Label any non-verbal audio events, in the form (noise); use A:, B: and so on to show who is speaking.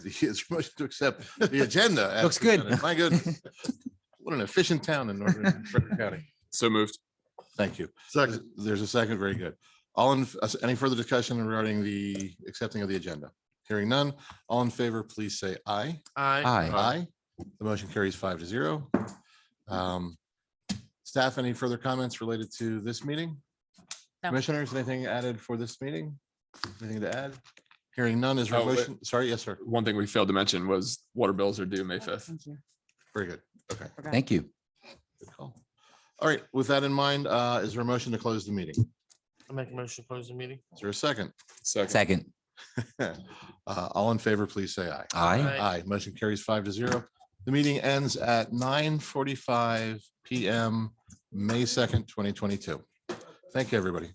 A: (laughs) It's motion to accept the agenda. as
B: (laughs) Looks good.
A: presented. My
B: (laughs)
A: goodness. What an efficient town in Northern Frederick County.
C: So moved.
A: Thank you. Second. There's a second. Very good. All in, uh, any further discussion regarding the accepting of the agenda? Hearing none. All in favor, please say aye.
C: Uh,
B: Aye.
A: Aye. The motion carries five to zero. Um, Staff, any further comments related to this meeting?
D: No.
A: Commissioners, anything added for this meeting? Anything to add? Hearing none is there a
C: Oh, wait.
A: motion. Sorry, yes, sir.
C: One thing we failed to mention was water bills are due May fifth.
D: Thank you.
A: Very good. Okay.
D: Forgot.
B: Thank you.
A: Good call. All right, with that in mind, uh, is there a motion to close the meeting?
E: I make a motion to close the meeting.
A: Is there a second?
C: Second.
B: Second.
A: Uh, All in favor, please say aye.
B: Aye.
A: Aye, motion carries five to zero. The meeting ends at nine forty-five PM, May second, twenty twenty-two. Thank you, everybody.